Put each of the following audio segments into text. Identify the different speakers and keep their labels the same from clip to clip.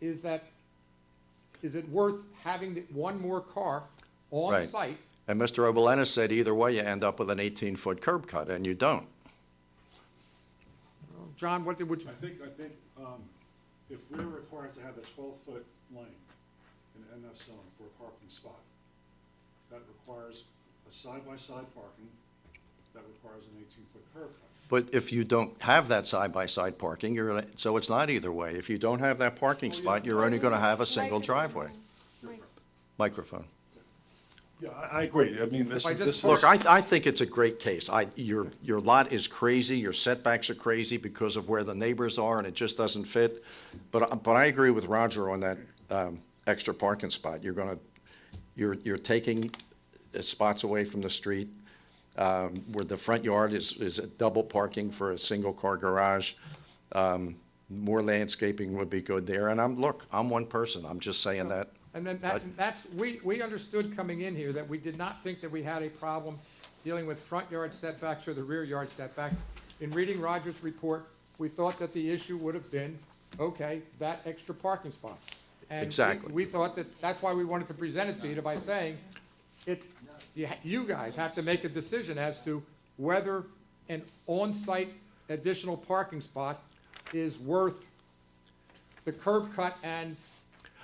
Speaker 1: is that, is it worth having the- one more car on
Speaker 2: Right.
Speaker 1: site?
Speaker 2: And Mr. Obelenis said either way, you end up with an 18-foot curb cut, and you don't.
Speaker 1: John, what did, would you?
Speaker 3: I think, I think, um, if we're required to have a twelve-foot lane in an NF zone for a parking spot, that requires a side-by-side parking, that requires an eighteen-foot curb cut.
Speaker 2: But if you don't have that side-by-side parking, you're, gonna- so it's not either way. If you don't have that parking spot, you're only going to have a single driveway. Microphone.
Speaker 3: Yeah, I, I agree, I mean, this
Speaker 1: If I
Speaker 3: is,
Speaker 1: just
Speaker 3: this is.
Speaker 1: park-
Speaker 2: Look, I, I think it's a great case. I, your, your lot is crazy, your setbacks are crazy because of where the neighbors are, and it just doesn't fit. But, I- but I agree with Roger on that, um, extra parking spot. You're gonna, you're, you're taking uh, spots away from the street, um, where the front yard is, is a double parking for a single-car garage. Um, more landscaping would be good there, and I'm, look, I'm one person, I'm just saying that.
Speaker 1: And then that, that's, we, we understood coming in here that we did not think that we had a problem dealing with front yard setbacks or the rear yard setback. In reading Roger's report, we thought that the issue would have been, okay, that extra parking spot. And we-
Speaker 2: Exactly.
Speaker 1: we thought that, that's why we wanted to present it to you by saying, it, you, ha- you guys have to make a decision as to whether an on-site additional parking spot is worth the curb cut and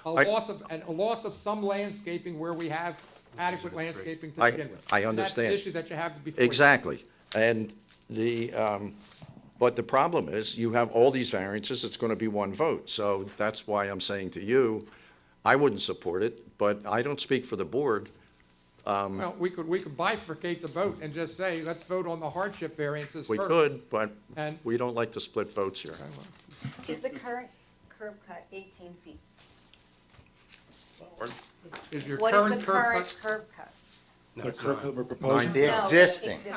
Speaker 1: a
Speaker 2: I-
Speaker 1: loss of, and a loss of some landscaping where we have adequate landscaping to
Speaker 2: I-
Speaker 1: begin with.
Speaker 2: I
Speaker 1: And
Speaker 2: understand.
Speaker 1: That's the issue that you have before. you.
Speaker 2: Exactly. And the, um, but the problem is, you have all these variances, it's going to be one vote. So that's why I'm saying to you, I wouldn't support it, but I don't speak for the board.
Speaker 1: Well, we could, we could bifurcate the vote and just say, let's vote on the hardship variances
Speaker 2: We
Speaker 1: first.
Speaker 2: could, but
Speaker 1: And-
Speaker 2: we don't like to split votes here.
Speaker 4: Is the current curb cut 18 feet?
Speaker 1: Is your
Speaker 4: What is the
Speaker 1: current curb
Speaker 4: current
Speaker 1: cut?
Speaker 4: curb cut?
Speaker 3: The curb cut we're proposing,
Speaker 4: No,
Speaker 5: The existing.
Speaker 4: Existing.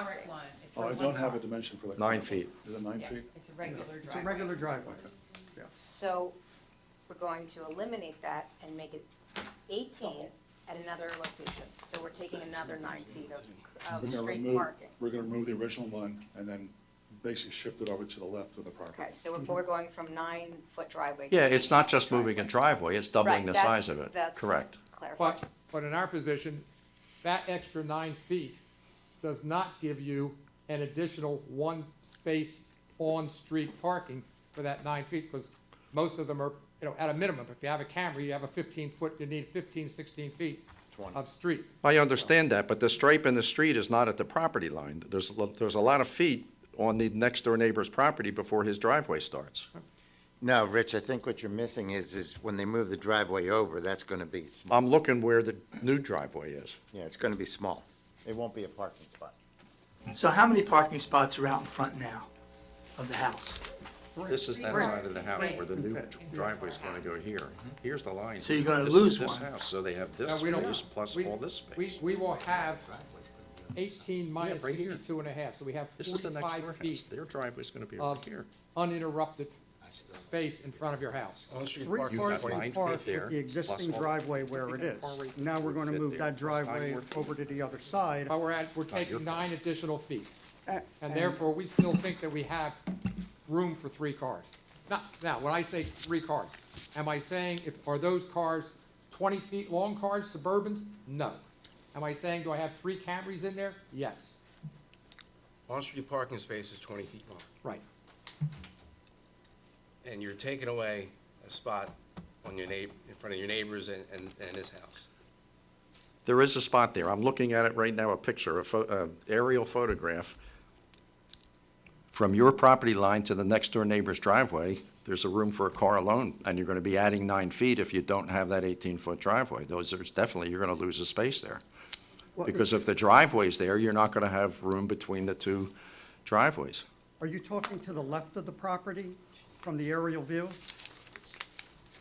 Speaker 3: oh, I don't have a dimension for that.
Speaker 2: Nine feet.
Speaker 3: Is it nine feet?
Speaker 6: It's a regular
Speaker 7: It's a
Speaker 6: driveway.
Speaker 7: regular driveway.
Speaker 4: So we're going to eliminate that and make it 18 at another location. So we're taking another nine feet of,
Speaker 3: We're
Speaker 4: of
Speaker 3: gonna
Speaker 4: Oh, straight
Speaker 3: remove-
Speaker 4: parking.
Speaker 3: We're gonna remove the original one and then basically shift it over to the left of the property.
Speaker 4: Okay, so we're, we're going from nine-foot driveway. to
Speaker 2: Yeah, it's not just
Speaker 4: 18
Speaker 2: moving a
Speaker 4: driveway.
Speaker 2: driveway, it's doubling
Speaker 4: Right,
Speaker 2: the
Speaker 4: that's-
Speaker 2: size of it.
Speaker 4: that's
Speaker 2: Correct.
Speaker 4: clarified.
Speaker 1: But, but in our position, that extra nine feet does not give you an additional one space on-street parking for that nine feet, because most of them are, you know, at a minimum, if you have a Camry, you have a fifteen foot, you need 15, 16 feet of street.
Speaker 2: I understand that, but the stripe in the street is not at the property line. There's, a lo- there's a lot of feet on the next-door neighbor's property before his driveway starts.
Speaker 5: No, Rich, I think what you're missing is, is when they move the driveway over, that's going to be, sm-
Speaker 2: I'm looking where the new driveway is.
Speaker 5: yeah, it's going to be small. It won't be a parking spot.
Speaker 8: So how many parking spots are out in front now of the house?
Speaker 2: This is that
Speaker 6: Right.
Speaker 2: side of the house where the new
Speaker 6: Right.
Speaker 2: driveway's gonna go here. Here's the line.
Speaker 8: So you're gonna
Speaker 2: This is
Speaker 8: lose
Speaker 2: this
Speaker 8: one.
Speaker 2: house, So they have
Speaker 1: No,
Speaker 2: this
Speaker 1: we don't-
Speaker 2: space plus
Speaker 1: we-
Speaker 2: all this
Speaker 1: We,
Speaker 2: space.
Speaker 1: we will have eighteen minus
Speaker 2: right here.
Speaker 1: sixty-two and a half, so we have
Speaker 2: This is the next door
Speaker 1: forty-five
Speaker 2: house.
Speaker 1: feet
Speaker 2: Their driveway's gonna be over
Speaker 1: of
Speaker 2: here.
Speaker 1: uninterrupted space in front of your house.
Speaker 7: Three
Speaker 2: You
Speaker 7: cars
Speaker 2: got nine
Speaker 7: can
Speaker 2: feet
Speaker 7: park
Speaker 2: there,
Speaker 7: with the existing
Speaker 2: plus all-
Speaker 7: driveway where it is. Now we're gonna
Speaker 2: fit
Speaker 7: move
Speaker 2: there,
Speaker 7: that
Speaker 2: plus nine
Speaker 7: driveway
Speaker 2: more feet.
Speaker 7: over to the other side.
Speaker 1: But we're at, we're
Speaker 2: your
Speaker 1: taking nine additional feet.
Speaker 7: A-
Speaker 1: And therefore, we still think that we have room for three cars. Now, now, when I say three cars, am I saying, if, are those cars twenty feet long cars, Suburbans? No. Am I saying, do I have three Camrys in there? Yes,
Speaker 9: On-street parking space is 20 feet long,
Speaker 1: right.
Speaker 9: and you're taking away a spot on your neigh, in front of your neighbors and, and and this house.
Speaker 2: There is a spot there. I'm looking at it right now, a picture, a pho, a aerial photograph. From your property line to the next-door neighbor's driveway, there's a room for a car alone, and you're gonna be adding nine feet if you don't have that 18-foot driveway. Those, there's definitely, you're gonna lose a space there.
Speaker 7: Well,
Speaker 2: Because if the driveway's there, you're not gonna have room between the two driveways.
Speaker 7: Are you talking to the left of the property from the aerial view?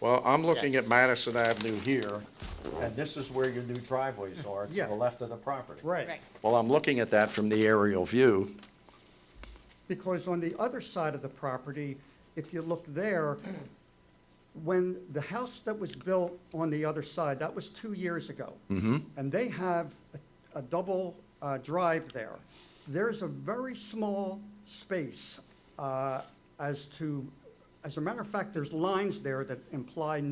Speaker 2: Well, I'm looking
Speaker 5: Yes.
Speaker 2: at Madison Avenue here, and this is where your new driveways are, to
Speaker 7: Yeah.
Speaker 2: the left of the property.
Speaker 7: Right.
Speaker 2: Well, I'm looking at that from the aerial view.
Speaker 7: Because on the other side of the property, if you look there, when the house that was built on the other side, that was two years ago. And they have a, a double uh, drive there. There's a very small space uh, as to, as a matter of fact, there's lines there that imply no